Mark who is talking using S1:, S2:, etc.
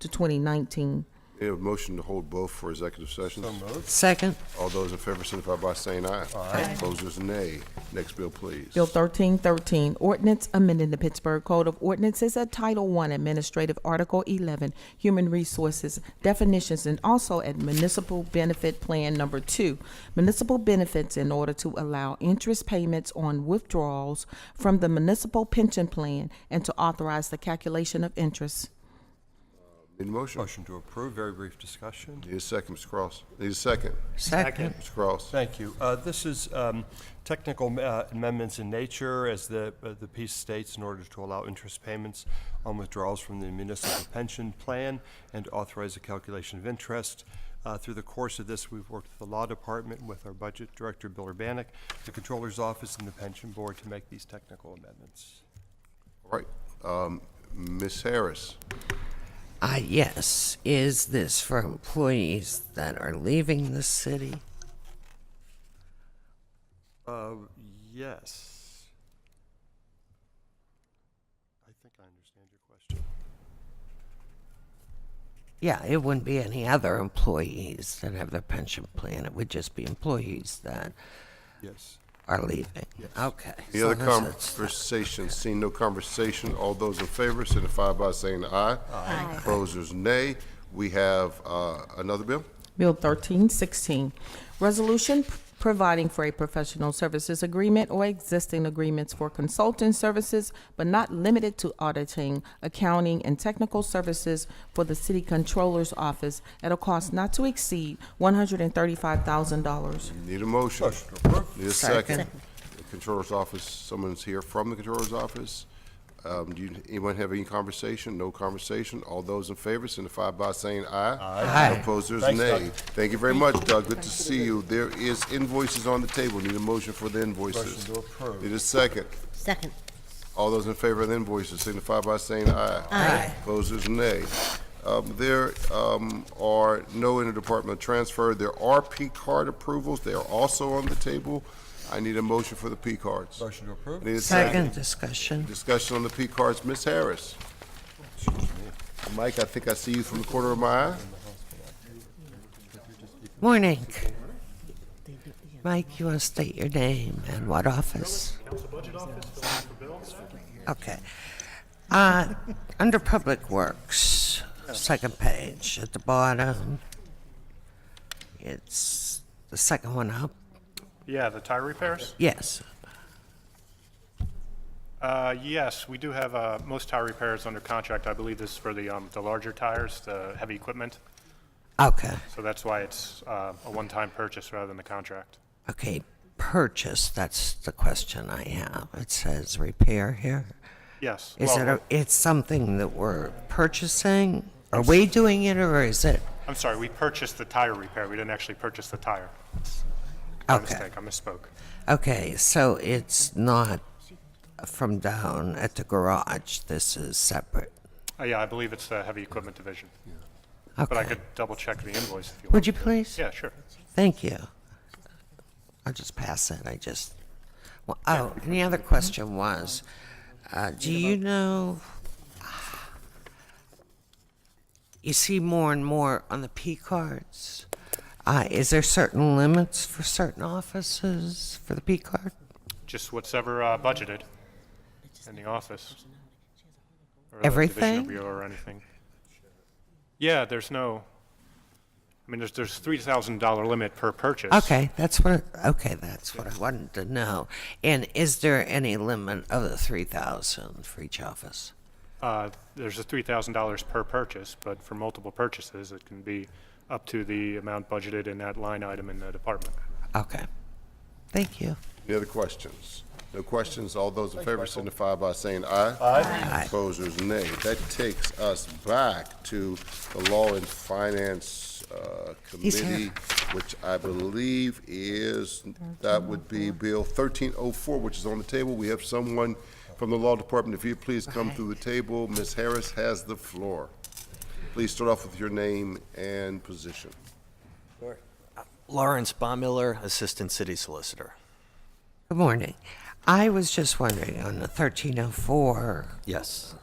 S1: to 2019.
S2: Any motion to hold both for executive sessions?
S3: Second.
S2: All those in favor signify by saying aye. Aye. Opposers, nay. Next bill, please.
S1: Bill 1313, ordinance amending the Pittsburgh Code of Ordinances at Title I Administrative Article 11, Human Resources Definitions, and also at Municipal Benefit Plan Number 2, Municipal Benefits in order to allow interest payments on withdrawals from the Municipal Pension Plan and to authorize the calculation of interest.
S2: Need a motion?
S4: Motion to approve, very brief discussion.
S2: Need a second, Mr. Cross. Need a second,
S3: Second.
S2: Mr. Cross.
S4: Thank you. Uh, This is um, technical uh, amendments in nature, as the, uh, the piece states, in order to allow interest payments on withdrawals from the municipal pension plan and authorize a calculation of interest. Uh, Through the course of this, we've worked with the Law Department, with our Budget Director, Bill Urbanek, the Controller's Office, and the Pension Board to make these technical amendments.
S2: All right. Um, Ms. Harris,
S3: Uh, yes. Is this for employees that are leaving the city?
S4: Uh, Yes. I think I understand your question.
S3: Yeah, it wouldn't be any other employees that have their pension plan. It would just be employees that
S4: Yes.
S3: are leaving. Okay.
S2: any
S3: so
S2: other
S3: this is-
S2: conversation? Seeing no conversation, all those in favor signify by saying aye. Aye. Opposers, nay. We have uh, another bill?
S1: Bill 1316, resolution p- providing for a professional services agreement or existing agreements for consulting services, but not limited to auditing, accounting, and technical services for the city controller's office at a cost not to exceed $135,000.
S2: Need a motion? Need a second.
S3: Second.
S2: The Controller's office, someone's here from the controller's office. Um, do you, anyone have any conversation? No conversation? All those in favor signify by saying aye.
S3: Aye. Aye.
S2: Opposers,
S4: Thanks, Doug.
S2: nay. Thank you very much, Doug. Good to see you. There is invoices on the table. Need a motion for the invoices.
S4: Motion to approve.
S2: Need a second.
S5: Second.
S2: All those in favor of the invoices signify by saying aye. Aye. Opposers, nay. Um, There um, are no interdepartmental transfer. There are P card approvals. They are also on the table. I need a motion for the P cards.
S4: Motion to approve.
S2: Need a
S3: Second discussion.
S2: Discussion on the P cards. Ms. Harris. Mike, I think I see you from the corner of my eye.
S3: Morning. Mike, you want to state your name and what office? Okay. Uh, Under Public Works, second page at the bottom. It's the second one up.
S6: Yeah, the tire repairs?
S3: Yes.
S6: Uh, yes, we do have, uh, most tire repairs under contract. I believe this is for the, um, the larger tires, the heavy equipment.
S3: Okay.
S6: So that's why it's, uh, a one-time purchase rather than the contract.
S3: Okay. Purchase, that's the question I have. It says repair here.
S6: Yes.
S3: Is
S6: well,
S3: it, a- it's something that we're purchasing? Are we doing it or is it?
S6: I'm sorry, we purchased the tire repair. We didn't actually purchase the tire. My
S3: Okay.
S6: mistake, I misspoke.
S3: Okay, so it's not from down at the garage. This is separate.
S6: Uh, yeah, I believe it's the heavy equipment division. But I
S3: Okay.
S6: could double-check the invoice if you want.
S3: Would you please?
S6: Yeah, sure.
S3: Thank you. I'll just pass it. I just. Well, oh, and the other question was, uh, do you know? You see more and more on the P cards. Uh, is there certain limits for certain offices for the P card?
S6: Just whatever, uh, budgeted in the office. or the
S3: Everything?
S6: Division of Bureau or anything. Yeah, there's no, I mean, there's, there's three thousand dollar limit per purchase.
S3: Okay, that's what, okay, that's what I wanted to know. And is there any limit of the three thousand for each office?
S6: Uh, there's a three thousand dollars per purchase, but for multiple purchases, it can be up to the amount budgeted in that line item in the department.
S3: Okay, thank you.
S2: Any other questions? No questions? All those in favor signify by saying aye. Aye. Opposers, nay. That takes us back to the Law and Finance uh,
S3: He's here.
S2: Committee, which I believe is, that would be Bill 1304, which is on the table. We have someone from the Law Department. If you please come through the table, Ms. Harris has the floor. Please start off with your name and position.
S7: Lawrence Baumiller, Assistant City Solicitor.
S3: Good morning. I was just wondering on the thirteen oh four,
S7: Yes.